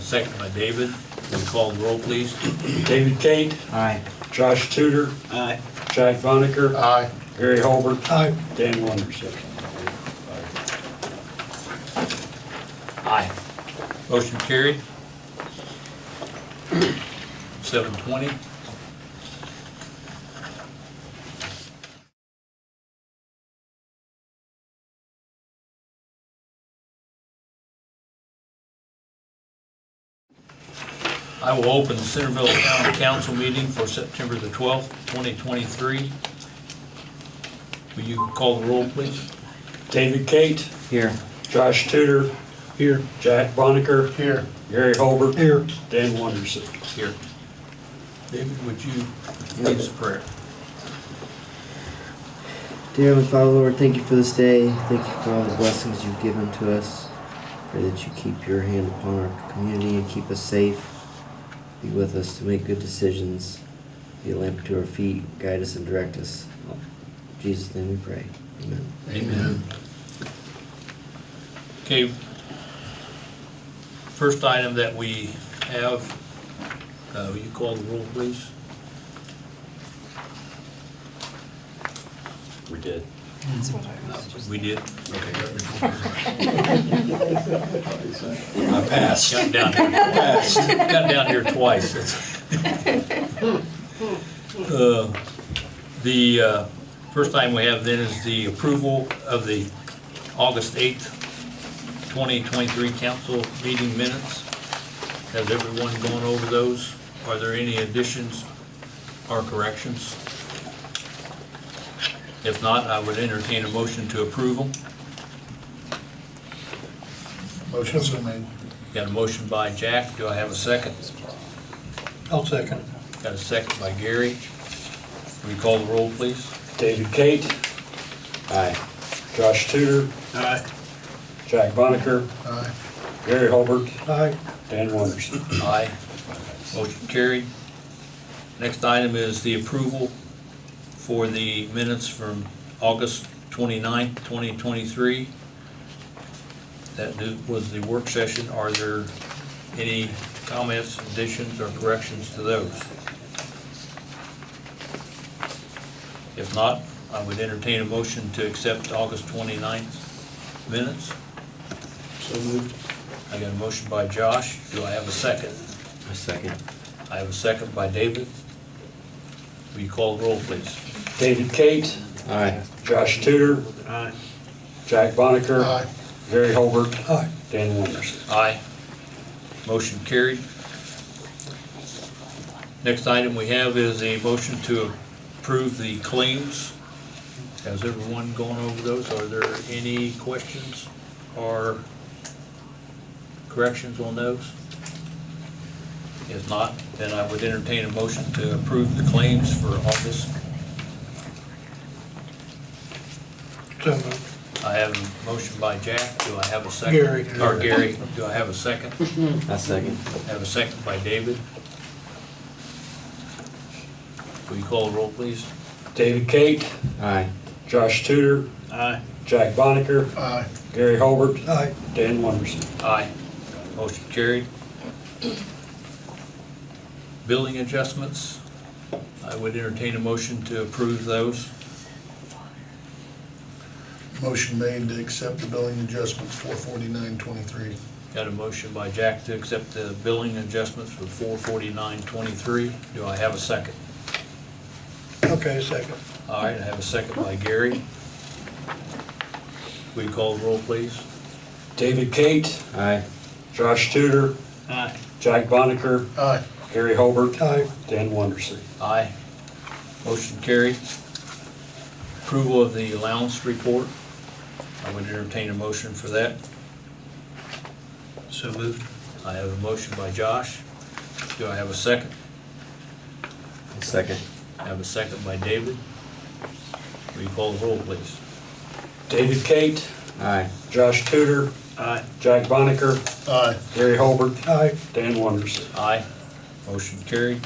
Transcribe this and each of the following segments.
second by David. Will you call the roll, please? David Tate, Aye. Josh Tudor, Aye. Jack Bonneker, Aye. Gary Holbert, Aye. Dan Wondersen. Aye. Motion carried. Seven twenty. I will open the Centerville Town Council meeting for September the twelfth, twenty twenty-three. Will you call the roll, please? David Tate, Here. Josh Tudor, Here. Jack Bonneker, Here. Gary Holbert, Here. Dan Wondersen. Here. David, would you lead us a prayer? Dear Heavenly Father, Lord, thank you for this day. Thank you for all the blessings you've given to us. Pray that you keep your hand upon our community and keep us safe. Be with us to make good decisions. Be a lamp to our feet. Guide us and direct us. In Jesus' name we pray. Amen. Amen. Okay. First item that we have, uh, will you call the roll, please? We did. That's what I No, was just. We did. Okay. I passed. Got down here, got down here twice. That's- Uh, The uh, first item we have then is the approval of the August 8th, 2023 council meeting minutes. Has everyone gone over those? Are there any additions or corrections? If not, I would entertain a motion to approve them. Motion's been made. Got a motion by Jack. Do I have a second? I'll second it. Got a second by Gary. Will you call the roll, please? David Tate. Aye. Josh Tudor, Aye. Jack Bonneker, Aye. Gary Holbert, Aye. Dan Wondersen. Aye. Motion carried. Next item is the approval for the minutes from August 29, twenty-three. That do- was the work session. Are there any comments, additions, or corrections to those? If not, I would entertain a motion to accept August 29th minutes. So moved. I got a motion by Josh. Do I have a second? A second. I have a second by David. Will you call the roll, please? David Tate, Aye. Josh Tudor. Aye. Jack Bonneker. Aye. Gary Holbert. Aye. Dan Wondersen. Aye. Motion carried. Next item we have is a motion to approve the claims. Has everyone gone over those? Are there any questions or corrections on those? If not, then I would entertain a motion to approve the claims for August So moved. I have a motion by Jack, do I have a second? Gary. Or Gary, do I have a second? A second. Have a second by David. Will you call the roll, please? David Tate, Aye. Josh Tudor, Aye. Jack Bonneker, Aye. Gary Holbert, Aye. Dan Wondersen. Aye. Motion carried. Billing adjustments, I would entertain a motion to approve those. Motion made to accept the billing adjustments for forty-nine twenty-three. Got a motion by Jack to accept the billing adjustments for four forty-nine twenty-three. Do I have a second? Okay, second. All right, I have a second by Gary. Will you call the roll, please? David Tate, Aye. Josh Tudor, Aye. Jack Bonneker, Aye. Gary Holbert, Aye. Dan Wondersen. Aye. Motion carried. Approval of the allowance report. I would entertain a motion for that. So moved. I have a motion by Josh. Do I have a second? A second. I have a second by David. Will you call the roll, please? David Tate, Aye. Josh Tudor, Aye. Jack Bonneker, Aye. Gary Holbert, Aye. Dan Wondersen. Aye. Motion carried.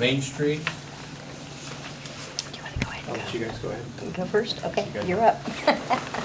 Main Street, Do you want to go ahead I'll and let you guys go ahead. go? You go first? Okay, you're up.